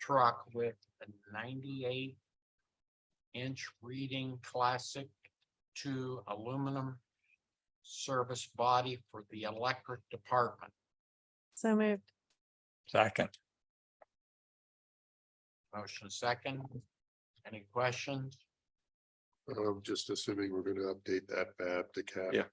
truck with a ninety-eight inch reading classic two aluminum service body for the electric department. So moved. Second, Motion second. Any questions? I'm Um, just assuming we're gonna update that fab to cap. Yeah.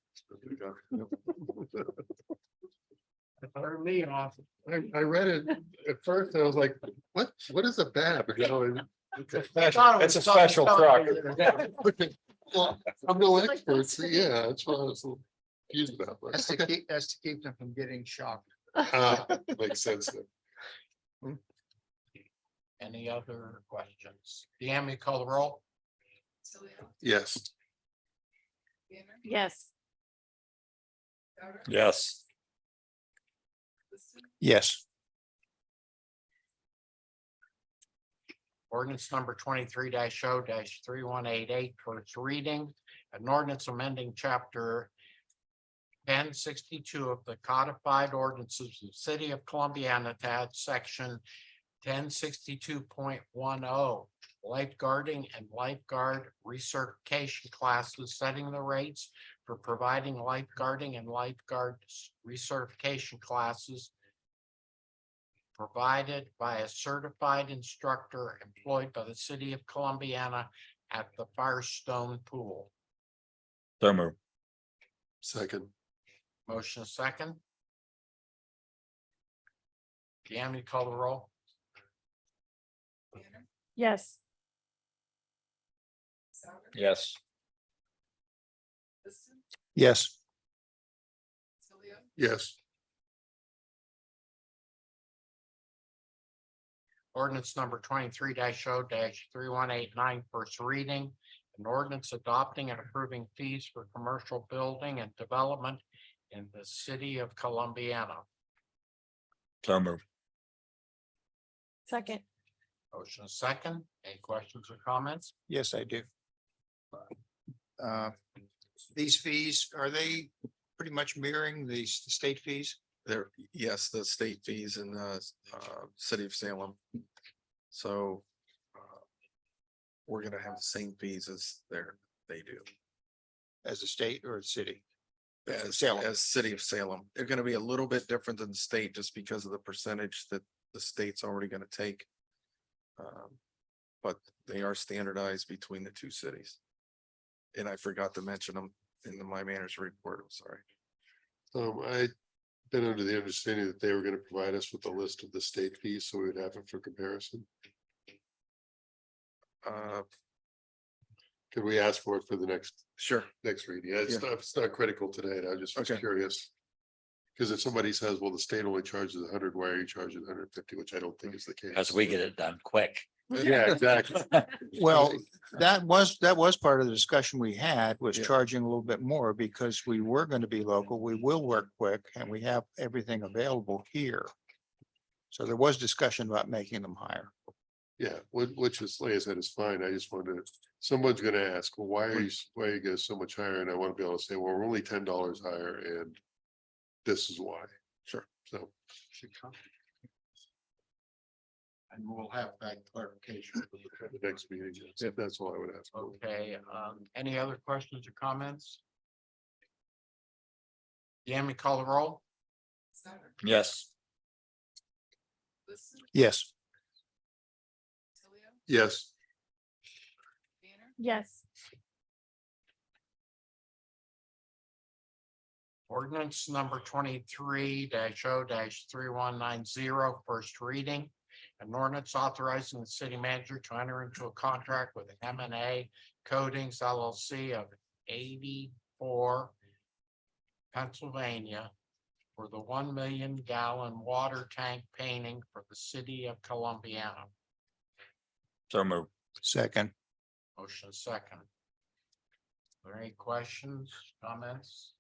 Throw me off. I, I read it at first, I was like, what, what is a BAB? You know, and- I thought it It's was a special something- Well, I'm no expert, so yeah, that's why I was a little confused about. but That's to okay. keep, that's to keep them from getting shocked. Ah, Makes sense. then. Any other questions? Deanne, you call the roll? Saleo. Yes. Banner. Yes. Souter. yes. Liston. Yes. Ordinance number twenty-three 0 three one eight eight for its reading. An ordinance amending chapter ten sixty-two of the codified ordinances of the city of Columbiana, attached section ten sixty-two point one oh, lifeguarding and lifeguard recertification classes, setting the rates for providing lifeguarding and lifeguard recertification classes provided by a certified instructor employed by the city of Columbiana at the Firestone Pool. So moved. Second, Motion is second. Deanne, you call the roll? Banner. Yes. Souter. Yes. Liston. Yes. Saleo. yes, Ordinance number twenty-three 0 three one eight nine first reading. An ordinance adopting and approving fees for commercial building and development in the city of Columbiana. So moved. Second. Motion is second. Any questions or comments? Yes, I do. Uh, These fees, are they pretty much mirroring the s- state fees? There, yes, the state fees in the uh city of Salem. So. uh, We're gonna have the same fees as there, they do. As a state or a city? As As Salem. as city of Salem, they're gonna be a little bit different than the state just because of the percentage that the state's already gonna take. Um, But they are standardized between the two cities. And I forgot to mention them in the my manager's report, I'm sorry. um, I been under the understanding that they were gonna provide us with a list of the state fees, so we would have it for comparison. Uh, Could we ask for it for the next, sure, next reading? It's Yeah. not, it's not critical today, and I just was Okay. curious. Because if somebody says, well, the state only charges hundred, why are you charging hundred and fifty, which I don't think is the case. As we get it done quick. Yeah, exactly. Well, that was, that was part of the discussion we had was Yeah. charging a little bit more because we were going to be local. We will work quick and we have everything available here. So there was discussion about making them higher. Yeah, which, which is, like I said, is fine. I just wanted, to- someone's gonna ask, well, why are you, s- why you go so much higher? And I wanna be able to say, well, we're only ten dollars higher and this is why. Sure. So, And we'll have that clarification. for you. at the next meeting, that's- that's all I would ask. for. Okay, um, any other questions or comments? Yami, call the roll? Souter. Yes. Liston. Yes. Saleo. Yes, Banner. Yes. Ordinance number twenty-three 0 three one nine zero, first reading. An ordinance authorizing the city manager to enter into a contract with M and A Coatings LLC of eighty-four Pennsylvania for the one million gallon water tank painting for the city of Columbiana. So moved. Second, Motion second. Are there any questions, comments?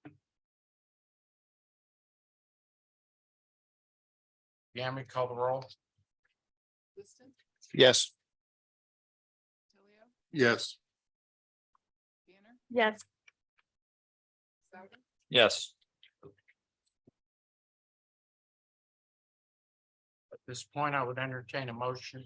Yami, call the roll? Liston. yes. Tilio. yes, Banner. Yes. Souter. Yes. At this point, I would entertain a motion